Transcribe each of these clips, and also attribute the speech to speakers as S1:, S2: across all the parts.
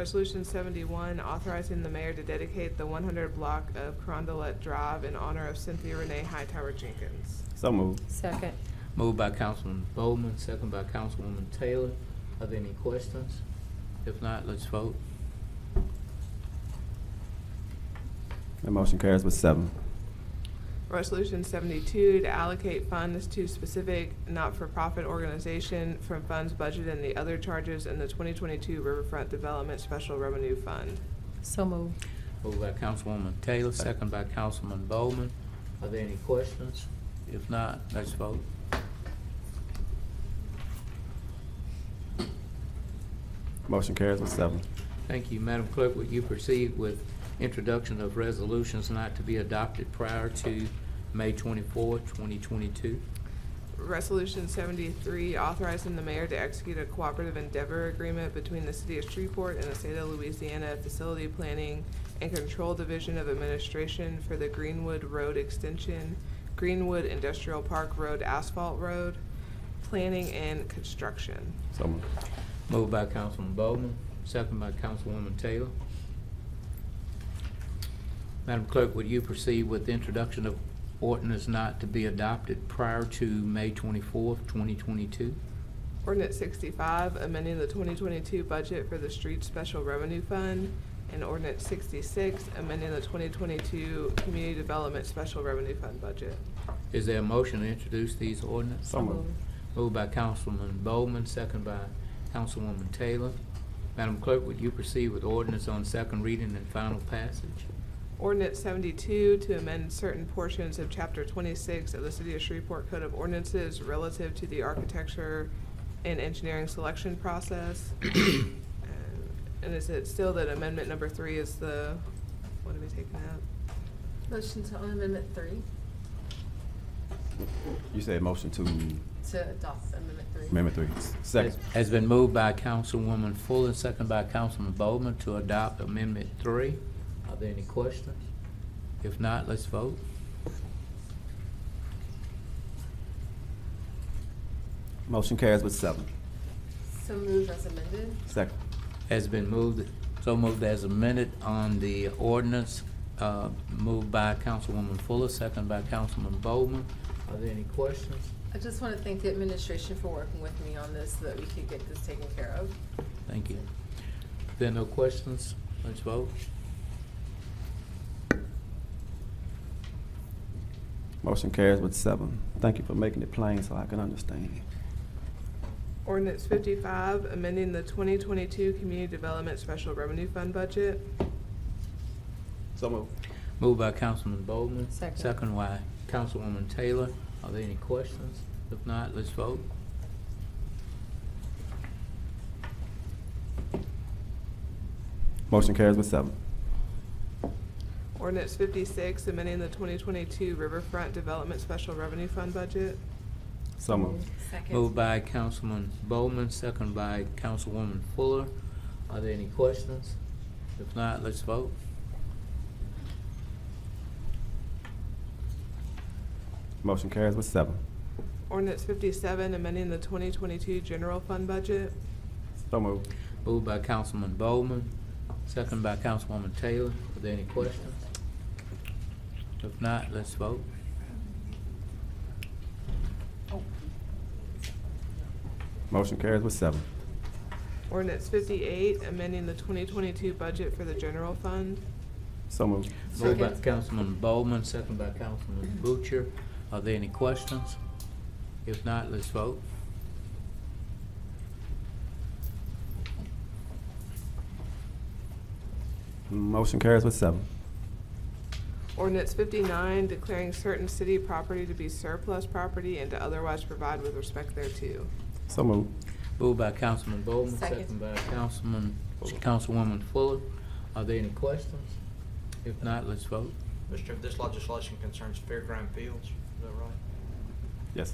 S1: Resolution seventy-one, authorizing the mayor to dedicate the one hundred block of Carondelet Drive in honor of Cynthia Renee Hightower Jenkins.
S2: So moved.
S3: Second.
S4: Moved by Councilman Bowman, second by Councilwoman Taylor. Are there any questions? If not, let's vote.
S2: The motion carries with seven.
S1: Resolution seventy-two, to allocate funds to specific not-for-profit organization from funds budgeted and the other charges in the twenty twenty-two Riverfront Development Special Revenue Fund.
S3: So moved.
S4: Moved by Councilwoman Taylor, second by Councilman Bowman. Are there any questions? If not, let's vote.
S2: Motion carries with seven.
S4: Thank you. Madam Clerk, would you proceed with introduction of resolutions not to be adopted prior to May 24, 2022?
S1: Resolution seventy-three, authorizing the mayor to execute a cooperative endeavor agreement between the city of Shreveport and the state of Louisiana Facility Planning and Control Division of Administration for the Greenwood Road Extension, Greenwood Industrial Park Road Asphalt Road, Planning and Construction.
S2: So moved.
S4: Moved by Councilman Bowman, second by Councilwoman Taylor. Madam Clerk, would you proceed with introduction of ordinance not to be adopted prior to May 24, 2022?
S1: Ordinance sixty-five, amending the twenty twenty-two budget for the street special revenue fund. And ordinance sixty-six, amending the twenty twenty-two community development special revenue fund budget.
S4: Is there a motion to introduce these ordinances?
S2: So moved.
S4: Moved by Councilman Bowman, second by Councilwoman Taylor. Madam Clerk, would you proceed with ordinance on second reading and final passage?
S1: Ordinance seventy-two to amend certain portions of chapter twenty-six of the City of Shreveport Code of Ordinances relative to the architecture and engineering selection process. And- And is it still that amendment number three is the, what are we taking out?
S5: Motion to on amendment three,
S2: You said motion to
S5: to adopt amendment three.
S2: amendment three. Second.
S4: Has been moved by Councilwoman Fuller, second by Councilman Bowman to adopt Amendment Three. Are there any questions? If not, let's vote.
S2: Motion carries with seven.
S5: So moved as amended.
S2: Second.
S4: Has been moved, so moved as amended on the ordinance, uh, moved by Councilwoman Fuller, second by Councilman Bowman. Are there any questions?
S5: I just want to thank the administration for working with me on this, so that we could get this taken care of.
S4: Thank you. If there are no questions, let's vote.
S2: Motion carries with seven. Thank you for making it plain so I can understand.
S1: Ordinance fifty-five, amending the twenty twenty-two Community Development Special Revenue Fund budget.
S2: So moved.
S4: Moved by Councilman Bowman.
S3: Second.
S4: Second by Councilwoman Taylor. Are there any questions? If not, let's vote.
S2: Motion carries with seven.
S1: Ordinance fifty-six, amending the twenty twenty-two Riverfront Development Special Revenue Fund budget.
S2: So moved.
S5: Second.
S4: Moved by Councilman Bowman, second by Councilwoman Fuller. Are there any questions? If not, let's vote.
S2: Motion carries with seven.
S1: Ordinance fifty-seven, amending the twenty twenty-two General Fund budget.
S2: So moved.
S4: Moved by Councilman Bowman, second by Councilwoman Taylor. Are there any questions? If not, let's vote.
S2: Motion carries with seven.
S1: Ordinance fifty-eight, amending the twenty twenty-two budget for the general fund.
S2: So moved.
S4: Moved by
S5: Second.
S4: Councilman Bowman, second by Councilman Butcher. Are there any questions? If not, let's vote.
S2: Motion carries with seven.
S1: Ordinance fifty-nine, declaring certain city property to be surplus property and to otherwise provide with respect thereto.
S2: So moved.
S4: Moved by Councilman Bowman,
S5: Second.
S4: second by Councilman, Councilwoman Fuller. Are there any questions? If not, let's vote.
S6: Mr. Chairman, this legislation concerns fairground fields, is that right?
S2: Yes.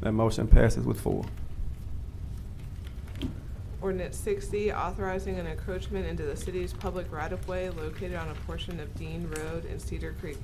S2: That motion passes with four.
S1: Ordinance sixty, authorizing an encroachment into the city's public right-of-way located on a portion of Dean Road and Cedar Creek